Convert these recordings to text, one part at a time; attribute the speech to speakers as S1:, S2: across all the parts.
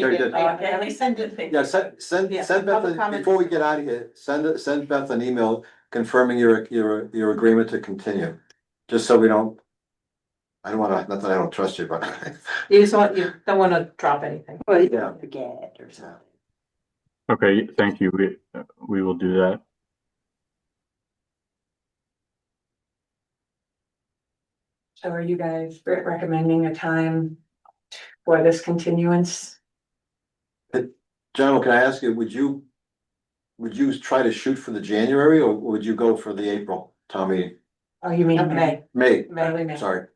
S1: Very good.
S2: Uh, At least send it.
S1: Yeah, send, send,
S2: Yeah,
S1: send Beth,
S2: public
S1: a-
S2: comment.
S1: before we get out of here, send, send Beth an email confirming your, your, your agreement to continue, just so we don't. I don't wanna, not that I don't trust you, but.
S2: You just want, you don't wanna drop anything.
S1: Yeah.
S2: Forget or something.
S3: Okay, thank you. We, uh, we will do that.
S4: So are you guys re- recommending a time for this continuance?
S1: General, can I ask you, would you, would you try to shoot for the January or would you go for the April, Tommy?
S4: Oh, you mean May,
S2: Okay,
S1: May,
S4: early May?
S1: sorry,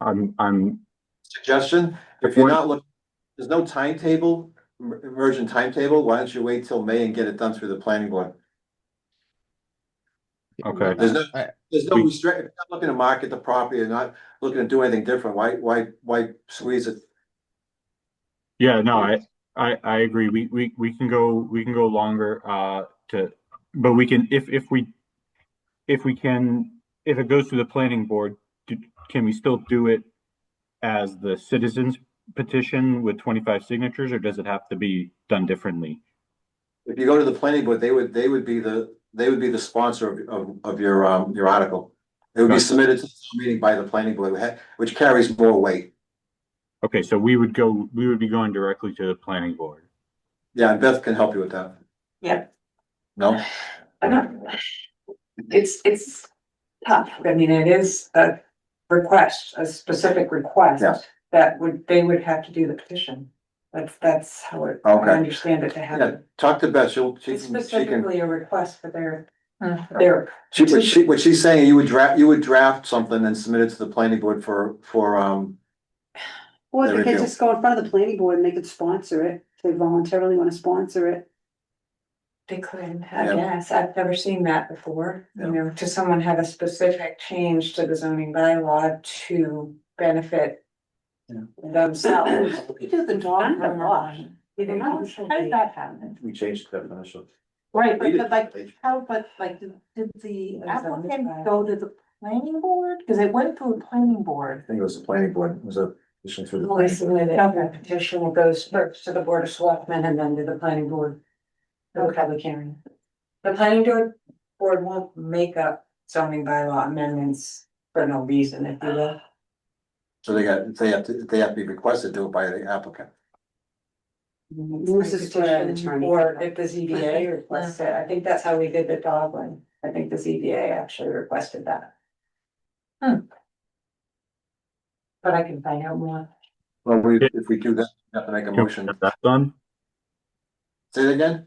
S3: I'm, I'm,
S1: suggestion, if you're not looking, there's no timetable, em- emergent timetable, why don't you wait till May and get it done through the planning board?
S3: okay.
S1: There's no,
S5: I-
S1: there's no
S3: We-
S1: restrict, if you're not looking to market the property, you're not looking to do anything different, why, why, why squeeze it?
S3: Yeah, no, I, I, I agree. We, we, we can go, we can go longer, uh, to, but we can, if, if we, if we can, if it goes to the planning board, do, can we still do it as the citizens petition with twenty-five signatures, or does it have to be done differently?
S1: If you go to the planning board, they would, they would be the, they would be the sponsor of, of, of your, um, your article. It would be
S3: Gotcha.
S1: submitted to the meeting by the planning board, wha- which carries more weight.
S3: Okay, so we would go, we would be going directly to the planning board.
S1: Yeah, and Beth can help you with that.
S4: Yep.
S1: No,
S4: I don't- Uh-huh. It's, it's tough. I mean, it is a request, a specific
S1: Yeah.
S4: request that would, they would have to do the petition. That's, that's how it, I
S1: Okay.
S4: understand it to
S1: yeah,
S4: happen.
S1: talk to Beth, she'll, she
S4: It's
S1: can, she can,
S4: specifically a request for their, their,
S1: she, what she, what she's saying, you would draft, you would draft something and submit it to the planning board for, for, um,
S6: Or
S1: There we
S6: they could
S1: go.
S6: just go in front of the planning board and they could sponsor it, if they voluntarily wanna sponsor it.
S4: they couldn't, I
S1: Yeah.
S4: guess. I've never seen that before.
S1: Yeah.
S4: You know, to someone have a specific change to the zoning bylaw to benefit
S1: Yeah.
S4: themselves.
S6: You do the dog
S4: Kind of wash.
S6: You know,
S4: How did that happen?
S1: we changed the definition.
S2: Right, but but like, how, but like, did did the applicant go to the planning board? Cause it went through the planning board.
S1: I think it was the planning board, it was a, issue through the.
S4: Only submit it, the petition goes first to the board of selectmen and then to the planning board. No public hearing. The planning board, board won't make up zoning bylaw amendments for no reason, if you will.
S1: So they got, they have to, they have to be requested to do it by the applicant.
S6: This is for an attorney.
S4: Or
S2: oh,
S4: if the ZBA requests it, I think that's how we did the dog one, I think the ZBA actually requested that. But I can find out more.
S1: Well, we, if we do that, we have to make a
S3: Can we
S1: motion.
S3: get that done?
S1: Say it again?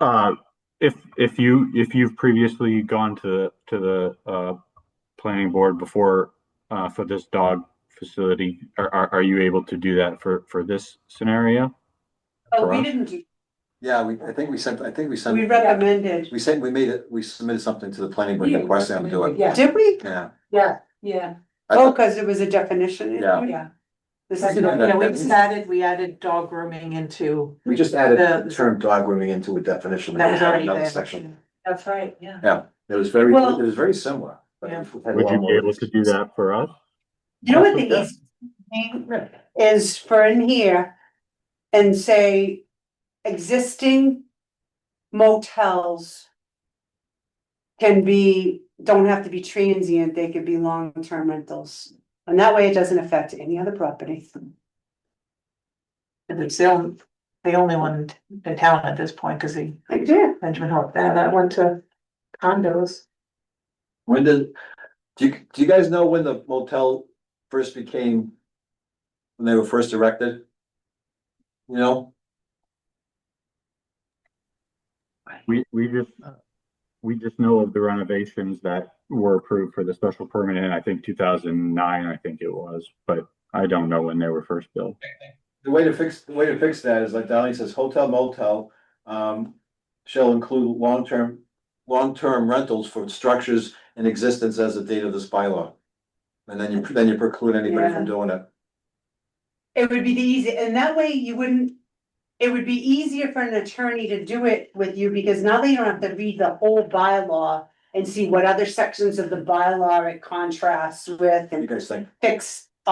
S3: Uh, if, if you, if you've previously gone to, to the, uh, planning board before, uh, for this dog facility, are, are, are you able to do that for, for this scenario?
S6: Oh,
S3: For
S6: we
S3: us?
S6: didn't do,
S1: Yeah, we, I think we sent, I think we
S6: we
S1: sent,
S6: recommended,
S1: we sent, we made it, we submitted something to the planning board
S4: Yeah.
S1: requesting them to do it.
S4: Yeah,
S6: did we?
S1: Yeah.
S4: yeah, yeah,
S1: I
S6: Oh,
S1: thought-
S6: cause it was a definition. issue?
S1: Yeah.
S4: yeah.
S6: This is.
S1: Yeah,
S2: Yeah,
S1: that-
S2: we
S1: that-
S2: just added, we added dog grooming into,
S1: We just added
S2: The-
S1: the term dog grooming into a definition.
S2: that was already
S1: Another
S2: there.
S1: section.
S4: That's right, yeah.
S1: It was very,
S6: Well-
S1: it was very similar. but
S2: Yeah.
S1: we've had a
S3: Would
S1: lot
S3: you be
S1: more-
S3: able to do that for us?
S6: You know what the easiest thing is for in here and say existing motels can be, don't have to be transient, they could be long-term rentals. And that way it doesn't affect any other property.
S2: and it's the only, the only one in town at this point, cause the
S6: I do.
S2: Benjamin Hope, that, that went to condos.
S1: When did, do you, do you guys know when the motel first became, when they were first erected? You know,
S3: We, we just, we just know of the renovations that were approved for the special permit in, I think, two thousand nine, I think it was, but I don't know when they were first built.
S1: the way to fix, the way to fix that is like Darlene says, hotel motel, um, shall include long-term, long-term rentals for structures in existence as of date of this bylaw. And then you, then you preclude anybody from doing it.
S6: It would be the easy, and that way you wouldn't, it would be easier for an attorney to do it with you because now they don't have to read the whole bylaw and see what other sections of the bylaw it contrasts with
S1: What do you
S6: and
S1: guys think?
S6: fix